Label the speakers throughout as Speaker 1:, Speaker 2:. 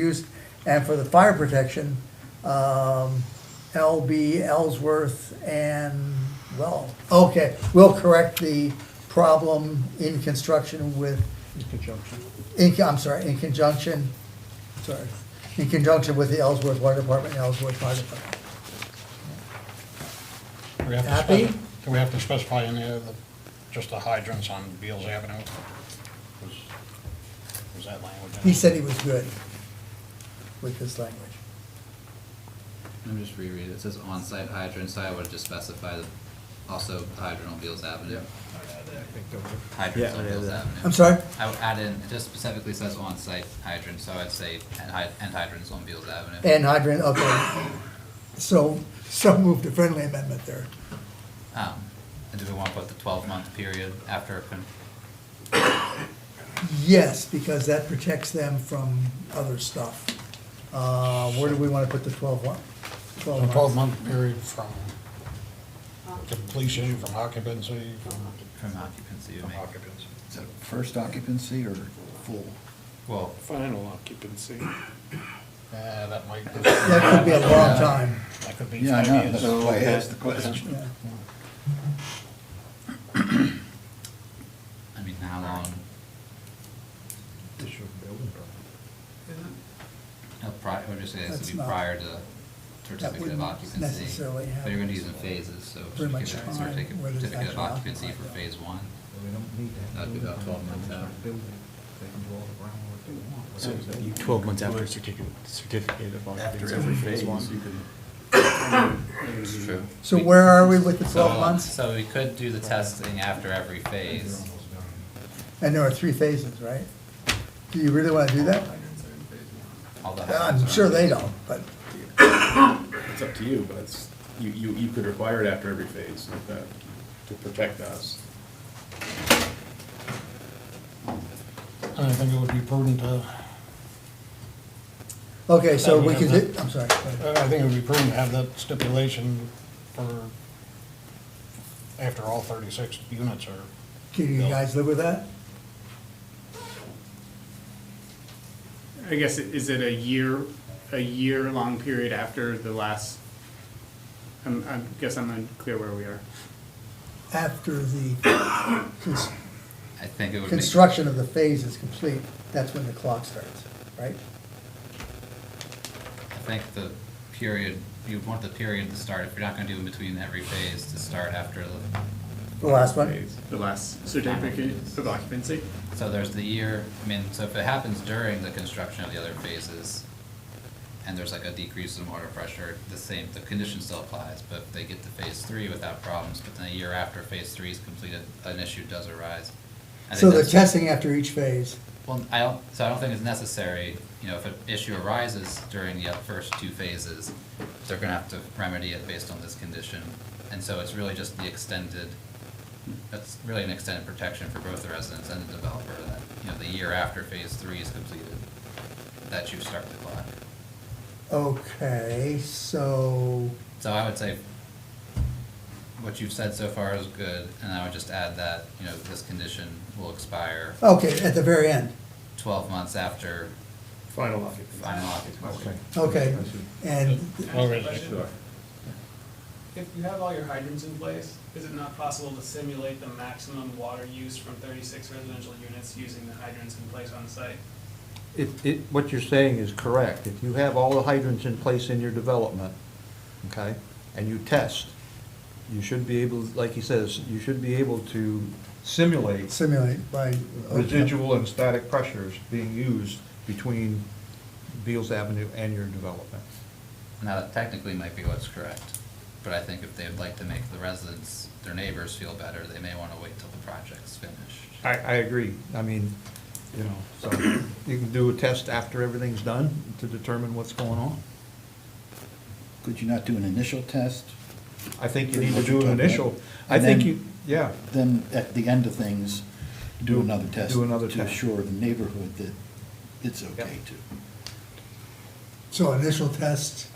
Speaker 1: use, and for the fire protection, um, LB Ellsworth and, well, okay, we'll correct the problem in construction with,
Speaker 2: In conjunction.
Speaker 1: in, I'm sorry, in conjunction, sorry, in conjunction with the Ellsworth Water Department, and Ellsworth Fire Department.
Speaker 3: Do we have to
Speaker 1: Happy?
Speaker 3: spec- Do we have to specify any of the, just the hydrants on Beals Avenue? Was was that language? in
Speaker 1: He
Speaker 3: it?
Speaker 1: said he was good with this language.
Speaker 4: Let me just reread it. It says on-site hydrant, so I would just specify that also hydrant on Beals Avenue. Hydrants
Speaker 2: Yeah,
Speaker 4: on
Speaker 2: yeah,
Speaker 4: Beals
Speaker 2: yeah.
Speaker 4: Avenue.
Speaker 1: I'm sorry?
Speaker 4: I would add in, it just specifically says on-site hydrant, so I'd say and hy- and hydrants on Beals Avenue.
Speaker 1: And hydrant, okay. So, so moved a friendly amendment there.
Speaker 4: Um, And do we want to put the twelve-month period after, con-
Speaker 1: Yes, because that protects them from other stuff. Uh, Where do we want to put the 12 one?
Speaker 3: A
Speaker 1: 12 months?
Speaker 3: twelve-month period from completion, from occupancy, from
Speaker 4: from occupancy, you
Speaker 3: from
Speaker 4: make,
Speaker 3: occupancy.
Speaker 2: Is that first occupancy or full?
Speaker 4: well,
Speaker 5: Final occupancy.
Speaker 3: Yeah, that might.
Speaker 1: That could be a long time.
Speaker 3: That could be
Speaker 2: Yeah, I know,
Speaker 3: five
Speaker 2: that's
Speaker 3: years.
Speaker 2: why I
Speaker 6: uh,
Speaker 2: asked the question.
Speaker 1: yeah.
Speaker 4: I mean, how long, uh, pri- I would just say this
Speaker 1: That's
Speaker 4: would be
Speaker 1: not-
Speaker 4: prior to certificate of
Speaker 1: wouldn't
Speaker 4: occupancy.
Speaker 1: necessarily
Speaker 4: But you're
Speaker 1: happen.
Speaker 4: gonna use in phases, so
Speaker 1: Pretty much
Speaker 4: certificate
Speaker 1: time,
Speaker 4: certificate-
Speaker 1: whether it's
Speaker 4: certificate of
Speaker 1: actually
Speaker 4: occupancy for
Speaker 1: occupied, yeah.
Speaker 4: phase one.
Speaker 6: We don't need that.
Speaker 4: That'd be about 12 months out.
Speaker 6: They can do all the groundwork they want.
Speaker 5: So twelve months after certificate, certificate of occupancy. After every phase
Speaker 4: It's true.
Speaker 1: So where are we with the
Speaker 4: So- uh,
Speaker 1: 12 months?
Speaker 4: So we could do the testing after every phase.
Speaker 1: And there are three phases, right? Do you really want to do that?
Speaker 4: all the
Speaker 1: I'm
Speaker 4: hydrants are-
Speaker 1: sure they don't, but,
Speaker 7: It's up to you, but it's, you, you, you could require it after every phase like that, to protect us.
Speaker 3: And I think it would be prudent to,
Speaker 1: okay, so
Speaker 3: That we
Speaker 1: we
Speaker 3: have
Speaker 1: could, do-
Speaker 3: that.
Speaker 1: I'm sorry.
Speaker 3: I think it would be prudent to have that stipulation for after all thirty-six units are.
Speaker 1: Can you
Speaker 3: built.
Speaker 1: guys live with that?
Speaker 5: I guess, it- is it a year, a year-long period after the last? I'm, I guess I'm unclear where we are.
Speaker 1: After the cons-
Speaker 4: I think it would make,
Speaker 1: construction of the phase is complete, that's when the clock starts, right?
Speaker 4: I think the period, you'd want the period to start, if you're not gonna do in between every phase, to start after the,
Speaker 1: The last one?
Speaker 5: The last certificate of occupancy?
Speaker 4: so there's the year, I mean, so if it happens during the construction of the other phases, and there's like a decrease in water pressure, the same, the condition still applies, but if they get to phase three without problems, but then a year after phase three is completed, an issue does arise. I think
Speaker 1: So the
Speaker 4: that's-
Speaker 1: testing after each phase,
Speaker 4: Well, I don't, so I don't think it's necessary, you know, if an issue arises during the first two phases, they're gonna have to remedy it based on this condition. And so it's really just the extended, that's really an extended protection for both the residents and the developer that, you know, the year after phase three is completed, that you start the clock.
Speaker 1: Okay, so,
Speaker 4: So I would say what you've said so far is good, and I would just add that, you know, this condition will expire
Speaker 1: okay, at the very end,
Speaker 4: twelve months after
Speaker 7: Final occupancy.
Speaker 4: final occupancy.
Speaker 1: okay. And,
Speaker 3: All residents.
Speaker 8: If you have all your hydrants in place, is it not possible to simulate the maximum water use from thirty-six residential units using the hydrants in place on site?
Speaker 9: It, it, what you're saying is correct. If you have all the hydrants in place in your development, okay, and you test, you should be able, like he says, you should be able to simulate
Speaker 1: simulate by.
Speaker 9: residual and static pressures being used between Beals Avenue and your development.
Speaker 4: Now, that technically might be what's correct, but I think if they would like to make the residents, their neighbors feel better, they may wanna wait till the project's finished.
Speaker 9: I, I agree. I mean, you know, so you can do a test after everything's done to determine what's going on.
Speaker 2: Could you not do an initial test?
Speaker 9: I think you need to do an initial, I
Speaker 2: And
Speaker 9: think
Speaker 2: then-
Speaker 9: you, yeah.
Speaker 2: Then at the end of things, do
Speaker 9: Do-
Speaker 2: another test.
Speaker 9: do another
Speaker 2: To
Speaker 9: test.
Speaker 2: assure the neighborhood that it's okay
Speaker 9: Yep.
Speaker 2: to.
Speaker 1: So initial test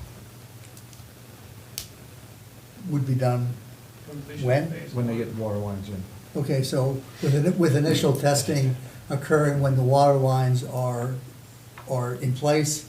Speaker 1: would be done,
Speaker 8: Completion of
Speaker 1: When?
Speaker 8: phase
Speaker 9: When they
Speaker 8: one.
Speaker 9: get water lines in.
Speaker 1: okay, so with, with initial testing occurring when the water lines are, are in place